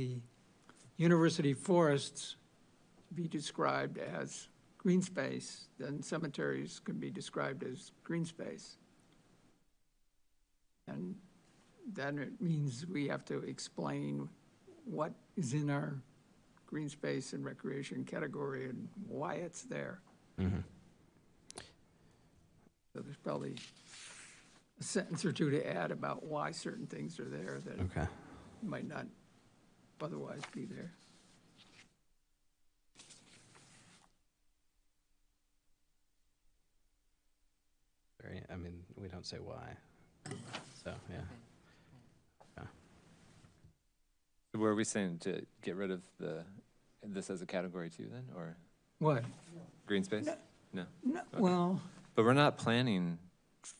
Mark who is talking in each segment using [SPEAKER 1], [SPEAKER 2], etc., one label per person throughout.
[SPEAKER 1] the university forests be described as green space, then cemeteries can be described as green space. And then it means we have to explain what is in our green space and recreation category and why it's there. So there's probably a sentence or two to add about why certain things are there that
[SPEAKER 2] Okay.
[SPEAKER 1] might not otherwise be there.
[SPEAKER 2] Very- I mean, we don't say why. So, yeah.
[SPEAKER 3] Were we saying to get rid of the, this as a category too then, or
[SPEAKER 1] What?
[SPEAKER 3] green space? No,
[SPEAKER 1] No, well,
[SPEAKER 3] but we're not planning,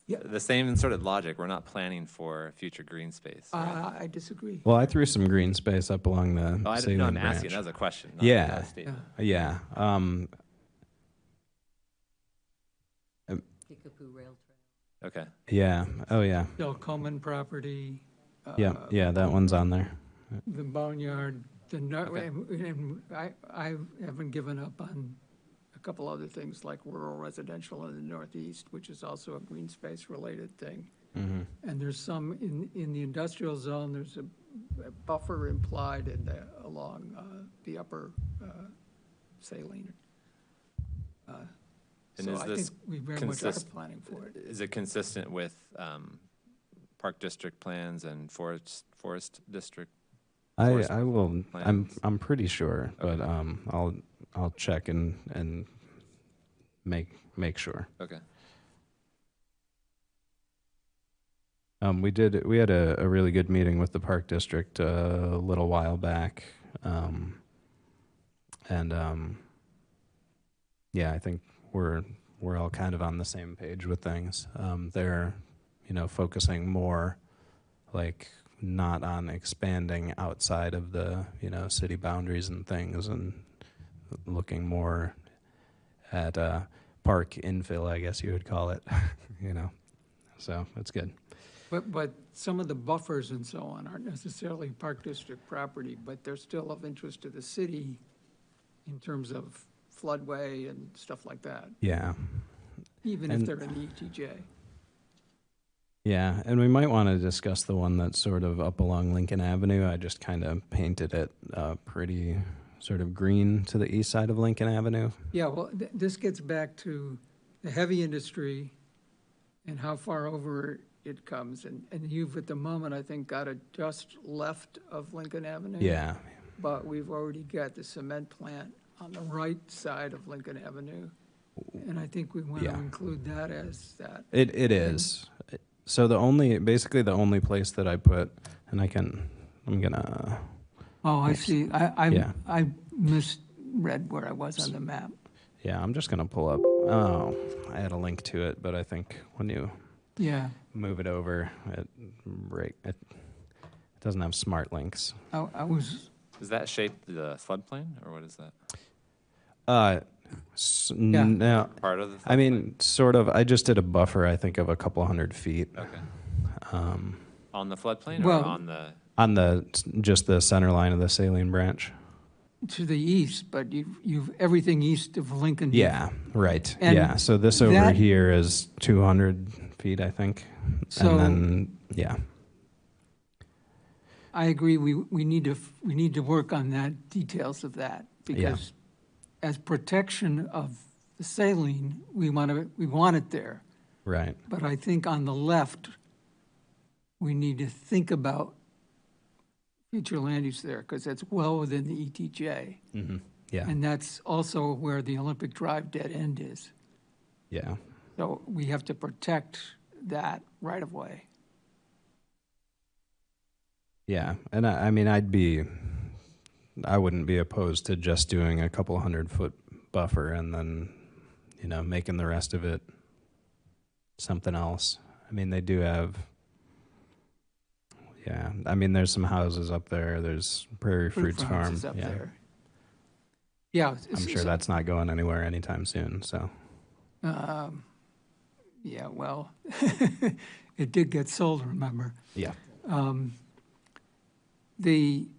[SPEAKER 1] Yeah.
[SPEAKER 3] the same sort of logic, we're not planning for future green space. right?
[SPEAKER 1] uh, I disagree.
[SPEAKER 2] Well, I threw some green space up along the
[SPEAKER 3] Oh, I didn't,
[SPEAKER 2] Saline
[SPEAKER 3] no, I'm
[SPEAKER 2] branch.
[SPEAKER 3] asking, that was a question. not-
[SPEAKER 2] Yeah.
[SPEAKER 3] not a statement.
[SPEAKER 2] Yeah. Um,
[SPEAKER 4] Kickapoo Rail Trail.
[SPEAKER 3] Okay,
[SPEAKER 2] yeah. Oh, yeah.
[SPEAKER 1] Del Coleman property.
[SPEAKER 2] Yeah.
[SPEAKER 1] uh,
[SPEAKER 2] Yeah. That one's on there.
[SPEAKER 1] The boneyard, the, nar-
[SPEAKER 3] Okay.
[SPEAKER 1] and and I, I haven't given up on a couple other things like rural residential in the northeast, which is also a green space related thing.
[SPEAKER 2] Mm-hmm.
[SPEAKER 1] And there's some in, in the industrial zone, there's a a buffer implied in the, along uh, the upper uh, saline. Uh,
[SPEAKER 3] And
[SPEAKER 1] So
[SPEAKER 3] is
[SPEAKER 1] I
[SPEAKER 3] this
[SPEAKER 1] think we very much are
[SPEAKER 3] consist-
[SPEAKER 1] planning for it.
[SPEAKER 3] is it consistent with, um, park district plans and forest, forest district?
[SPEAKER 2] I,
[SPEAKER 3] Forest
[SPEAKER 2] I will. I'm
[SPEAKER 3] plans.
[SPEAKER 2] I'm pretty sure, but um, I'll I'll check and and make make sure.
[SPEAKER 3] Okay,
[SPEAKER 2] Um, we did. We had a, a really good meeting with the park district uh, a little while back, um, and um, yeah, I think we're we're all kind of on the same page with things. Um, they're, you know, focusing more, like not on expanding outside of the you know city boundaries and things, and looking more at uh, park infill, I guess you would call it. you know, so that's good.
[SPEAKER 1] But, but some of the buffers and so on aren't necessarily park district property, but they're still of interest to the city in terms of floodway and stuff like that,
[SPEAKER 2] Yeah.
[SPEAKER 1] even if
[SPEAKER 2] And-
[SPEAKER 1] they're in the E ETJ.
[SPEAKER 2] Yeah, and we might want to discuss the one that's sort of up along Lincoln Avenue. I just kind of painted it uh, pretty sort of green to the east side of Lincoln Avenue.
[SPEAKER 1] Yeah, well, th- this gets back to the heavy industry and how far over it comes. And, and you've at the moment, I think, got it just left of Lincoln Avenue.
[SPEAKER 2] Yeah,
[SPEAKER 1] But we've already got the cement plant on the right side of Lincoln Avenue. And I think we want to
[SPEAKER 2] Yeah.
[SPEAKER 1] include that as that.
[SPEAKER 2] it it is. So the only basically the only place that I put, and I can I'm gonna
[SPEAKER 1] Oh, I see. I,
[SPEAKER 2] Yeah.
[SPEAKER 1] I, I misread where I was on the map.
[SPEAKER 2] yeah I'm just gonna pull up. Oh, I had a link to it, but I think when you
[SPEAKER 1] Yeah.
[SPEAKER 2] move it over, it break it, it doesn't have smart links.
[SPEAKER 1] I, I was,
[SPEAKER 3] does that shape the floodplain, or what is that?
[SPEAKER 2] Uh, s-
[SPEAKER 1] Yeah.
[SPEAKER 2] no,
[SPEAKER 3] Part of the?
[SPEAKER 2] I
[SPEAKER 3] floodplain?
[SPEAKER 2] mean, sort of. I just did a buffer, I think, of a couple hundred feet
[SPEAKER 3] Okay,
[SPEAKER 2] um,
[SPEAKER 3] on the floodplain or
[SPEAKER 1] Well-
[SPEAKER 3] on the,
[SPEAKER 2] on the just the center line of the saline branch.
[SPEAKER 1] to the east, but you've, you've, everything east of Lincoln.
[SPEAKER 2] Yeah, right.
[SPEAKER 1] Mm-hmm. And
[SPEAKER 2] yeah. So this over
[SPEAKER 1] that-
[SPEAKER 2] here is 200 feet, I think.
[SPEAKER 1] So-
[SPEAKER 2] and then, yeah,
[SPEAKER 1] I agree, we, we need to, f- we need to work on that, details of that, because as protection of the saline, we want to, we want it there.
[SPEAKER 2] right.
[SPEAKER 1] But I think on the left, we need to think about future land use there, because that's well within the ETJ.
[SPEAKER 2] hmm Yeah,
[SPEAKER 1] Mm-hmm. And that's also where the Olympic Drive dead end is.
[SPEAKER 2] yeah.
[SPEAKER 1] So we have to protect that right of way.
[SPEAKER 2] Yeah, and I, I mean, I'd be, I wouldn't be opposed to just doing a couple hundred foot buffer and then, you know, making the rest of it something else. I mean, they do have, yeah. I mean, there's some houses up there. There's Prairie
[SPEAKER 1] Fruit
[SPEAKER 2] Fruits
[SPEAKER 1] farms
[SPEAKER 2] Farm.
[SPEAKER 1] is up
[SPEAKER 2] yeah,
[SPEAKER 1] there. Yeah. it's-
[SPEAKER 2] I'm
[SPEAKER 1] it's-
[SPEAKER 2] sure that's not going anywhere anytime soon. So
[SPEAKER 1] Um, Yeah, well, it did get sold, remember?
[SPEAKER 2] yeah,
[SPEAKER 1] Um, The,